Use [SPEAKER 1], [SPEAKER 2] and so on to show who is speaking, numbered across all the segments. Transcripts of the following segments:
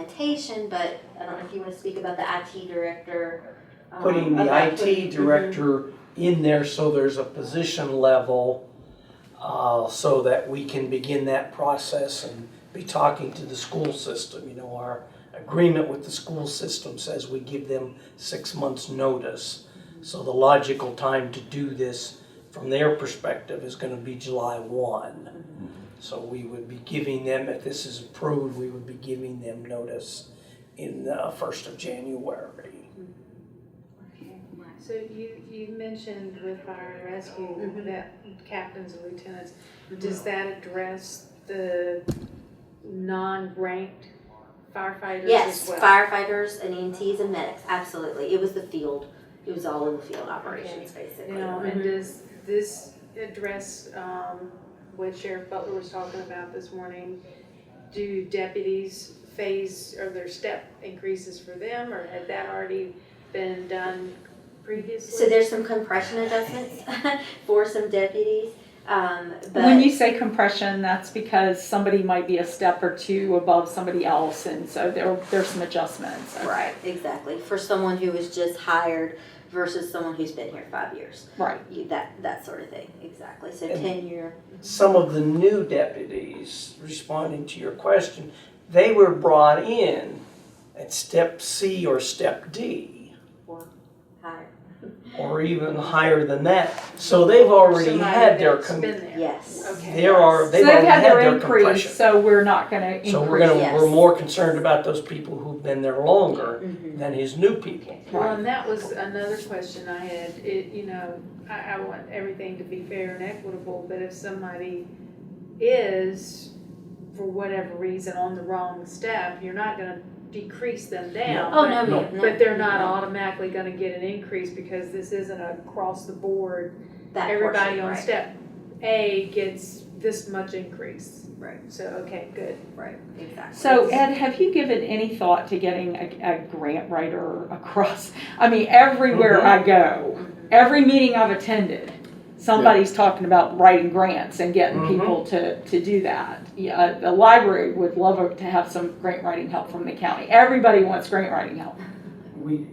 [SPEAKER 1] implementation, but I don't know if you wanna speak about the IT director. um,
[SPEAKER 2] putting the
[SPEAKER 1] about
[SPEAKER 2] IT
[SPEAKER 1] putting- mm-hmm.
[SPEAKER 2] director in there so there's a position level, uh, so that we can begin that process and be talking to the school system. You know, our agreement with the school system says we give them six months' notice. So the logical time to do this, from their perspective, is gonna be July one.
[SPEAKER 1] Mm-hmm.
[SPEAKER 2] So we would be giving them, if this is approved, we would be giving them notice in the first of January.
[SPEAKER 3] So you, you mentioned with fire and rescue
[SPEAKER 2] Mm-hmm.
[SPEAKER 1] Mhm.
[SPEAKER 3] that captains and lieutenants, does that address the non-ranked firefighters
[SPEAKER 1] Mm-hmm. Yes,
[SPEAKER 3] as well?
[SPEAKER 1] firefighters and EMTs and medics, absolutely. It was the field. It was all in the field operations, basically.
[SPEAKER 3] You know,
[SPEAKER 2] Mm-hmm.
[SPEAKER 3] and does this address, um, what Sheriff Butler was talking about this morning? Do deputies phase, are there step increases for them, or had that already been done previously?
[SPEAKER 1] So there's some compression adjustments for some deputies, um, but.
[SPEAKER 4] When you say compression, that's because somebody might be a step or two above somebody else, and so there, there's some adjustments.
[SPEAKER 1] Right, exactly. For someone who was just hired versus someone who's been here five years,
[SPEAKER 4] Right.
[SPEAKER 1] you, that, that sort of thing, exactly. So
[SPEAKER 2] And-
[SPEAKER 1] tenure,
[SPEAKER 2] some of the new deputies, responding to your question, they were brought in at step C or step D,
[SPEAKER 1] hire,
[SPEAKER 2] or even higher than that. So they've already
[SPEAKER 3] Somebody
[SPEAKER 2] had their,
[SPEAKER 3] that's
[SPEAKER 2] com-
[SPEAKER 3] been there.
[SPEAKER 1] yes.
[SPEAKER 3] Okay.
[SPEAKER 2] there are,
[SPEAKER 4] So
[SPEAKER 2] they've already had their
[SPEAKER 4] increase,
[SPEAKER 2] compression.
[SPEAKER 4] so we're not gonna increase.
[SPEAKER 2] So we're gonna, we're
[SPEAKER 1] Yes.
[SPEAKER 2] more concerned about those people who've been there longer
[SPEAKER 1] Mhm.
[SPEAKER 2] than his new people.
[SPEAKER 3] Well, and that was another question I had, it, you know, I, I want everything to be fair and equitable, but if somebody is, for whatever reason, on the wrong step, you're not gonna decrease them down.
[SPEAKER 1] Oh, no,
[SPEAKER 3] but-
[SPEAKER 1] ma'am, no.
[SPEAKER 3] But they're not automatically gonna get an increase because this isn't across the board,
[SPEAKER 1] That portion,
[SPEAKER 3] everybody on
[SPEAKER 1] right.
[SPEAKER 3] step A gets this much increase.
[SPEAKER 1] Right.
[SPEAKER 3] So, okay, good.
[SPEAKER 1] Right, exactly.
[SPEAKER 4] So Ed, have you given any thought to getting a, a grant writer across? I mean, everywhere
[SPEAKER 2] Mm-hmm.
[SPEAKER 4] I go, every meeting I've attended, somebody's talking about writing grants and getting
[SPEAKER 2] Mhm.
[SPEAKER 4] people to, to do that. Yeah, uh, the library would love to have some grant writing help from the county. Everybody wants grant writing help.
[SPEAKER 2] We,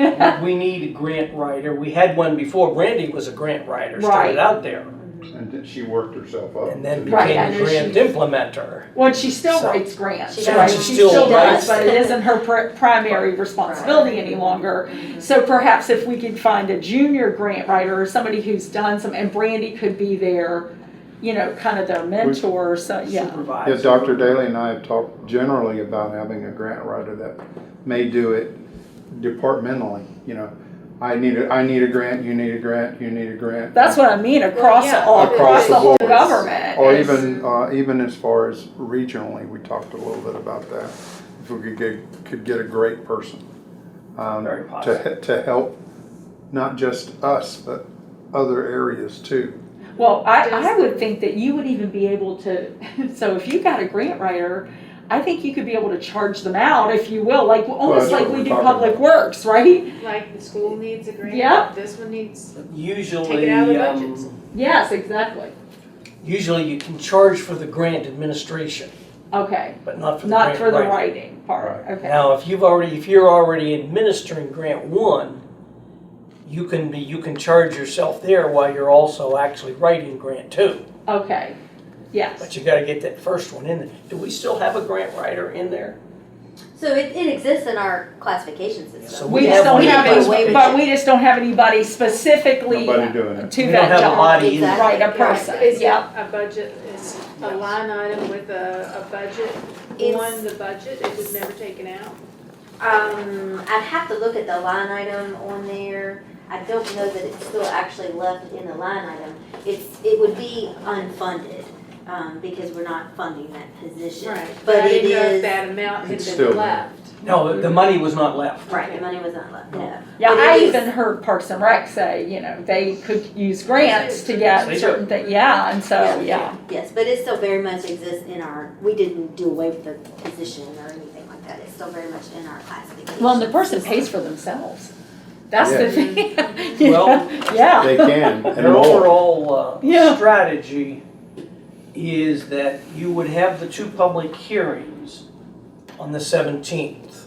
[SPEAKER 2] we need a grant writer. We had one before. Brandy was a grant writer, started
[SPEAKER 4] Right.
[SPEAKER 2] out there,
[SPEAKER 5] And then she worked herself up.
[SPEAKER 2] and then
[SPEAKER 5] to-
[SPEAKER 4] Right,
[SPEAKER 2] became
[SPEAKER 4] I
[SPEAKER 2] a
[SPEAKER 4] know
[SPEAKER 2] grant
[SPEAKER 4] she's-
[SPEAKER 2] implementer.
[SPEAKER 4] Well, she still
[SPEAKER 2] So-
[SPEAKER 4] writes grants,
[SPEAKER 1] She
[SPEAKER 4] right?
[SPEAKER 1] does.
[SPEAKER 2] She still
[SPEAKER 1] writes.
[SPEAKER 4] But it isn't her pri- primary responsibility any longer. So perhaps if we could find a junior grant writer or somebody who's done some, and Brandy could be their, you know, kind of their mentor, so, yeah.
[SPEAKER 2] Supervisor.
[SPEAKER 5] Yeah, Dr. Daly and I have talked generally about having a grant writer that may do it departmentally, you know. I need a, I need a grant, you need a grant, you need a grant.
[SPEAKER 4] That's what I mean, across,
[SPEAKER 3] Well, yeah.
[SPEAKER 4] all- across
[SPEAKER 5] Across
[SPEAKER 4] the
[SPEAKER 5] the
[SPEAKER 4] whole
[SPEAKER 5] board.
[SPEAKER 4] government.
[SPEAKER 5] Or
[SPEAKER 4] is-
[SPEAKER 5] even, uh, even as far as regionally, we talked a little bit about that. If we could get, could get a great person. um,
[SPEAKER 2] Very
[SPEAKER 5] To,
[SPEAKER 2] possible.
[SPEAKER 5] he- to help not just us, but other areas too.
[SPEAKER 4] Well, I, I
[SPEAKER 3] Just-
[SPEAKER 4] would think that you would even be able to, so if you got a grant writer, I think you could be able to charge them out, if you will, like, almost
[SPEAKER 5] that's
[SPEAKER 4] like
[SPEAKER 5] what
[SPEAKER 4] we
[SPEAKER 5] we're
[SPEAKER 4] do
[SPEAKER 5] talking
[SPEAKER 4] public
[SPEAKER 5] about.
[SPEAKER 4] works, right?
[SPEAKER 3] Like, the school needs a grant.
[SPEAKER 4] Yep.
[SPEAKER 3] This one needs,
[SPEAKER 2] Usually,
[SPEAKER 3] Take it out of the budgets.
[SPEAKER 2] um,
[SPEAKER 4] Yes, exactly.
[SPEAKER 2] usually you can charge for the grant administration,
[SPEAKER 4] Okay,
[SPEAKER 2] but not for the
[SPEAKER 4] not
[SPEAKER 2] grant
[SPEAKER 4] for the
[SPEAKER 2] writing.
[SPEAKER 4] writing part, okay.
[SPEAKER 2] Now, if you've already, if you're already administering grant one, you can be, you can charge yourself there while you're also actually writing grant two.
[SPEAKER 4] Okay, yes.
[SPEAKER 2] But you gotta get that first one in there. Do we still have a grant writer in there?
[SPEAKER 1] So it, it exists in our classification system.
[SPEAKER 2] So
[SPEAKER 4] We
[SPEAKER 2] We
[SPEAKER 4] just
[SPEAKER 2] have
[SPEAKER 4] don't
[SPEAKER 2] one
[SPEAKER 4] have
[SPEAKER 2] in
[SPEAKER 4] any,
[SPEAKER 1] place.
[SPEAKER 4] but we just don't have anybody specifically
[SPEAKER 5] Nobody
[SPEAKER 4] to
[SPEAKER 5] doing it.
[SPEAKER 2] We don't
[SPEAKER 4] that
[SPEAKER 2] have a
[SPEAKER 4] job.
[SPEAKER 2] body in there.
[SPEAKER 1] Exactly.
[SPEAKER 4] Right, a person,
[SPEAKER 3] Is it
[SPEAKER 4] yeah.
[SPEAKER 3] a budget, is a line item with a, a budget
[SPEAKER 1] It's-
[SPEAKER 3] on the budget, it was never taken out?
[SPEAKER 1] Um, I'd have to look at the line item on there. I don't know that it's still actually left in the line item. It's, it would be unfunded, um, because we're not funding that position. But
[SPEAKER 3] I
[SPEAKER 1] it
[SPEAKER 3] didn't know if
[SPEAKER 1] is,
[SPEAKER 3] that amount
[SPEAKER 5] It's
[SPEAKER 3] had
[SPEAKER 5] still
[SPEAKER 3] been
[SPEAKER 5] there.
[SPEAKER 3] left.
[SPEAKER 2] No, the money was not left.
[SPEAKER 1] right, the money was not left, no.
[SPEAKER 4] Yeah,
[SPEAKER 1] But it
[SPEAKER 4] I
[SPEAKER 1] is-
[SPEAKER 4] even heard Parks and Rec say, you know, they could use grants to
[SPEAKER 2] They
[SPEAKER 4] get
[SPEAKER 2] do.
[SPEAKER 4] certain things, yeah, and so, yeah.
[SPEAKER 1] Yes, but it still very much exists in our, we didn't do away with the position or anything like that. It's still very much in our classification. system.
[SPEAKER 4] for themselves. That's the
[SPEAKER 5] Yeah.
[SPEAKER 4] thing.
[SPEAKER 2] Well-
[SPEAKER 4] Yeah.
[SPEAKER 5] They can
[SPEAKER 2] Their
[SPEAKER 5] and more.
[SPEAKER 2] overall uh,
[SPEAKER 4] Yeah.
[SPEAKER 2] strategy is that you would have the two public hearings on the seventeenth.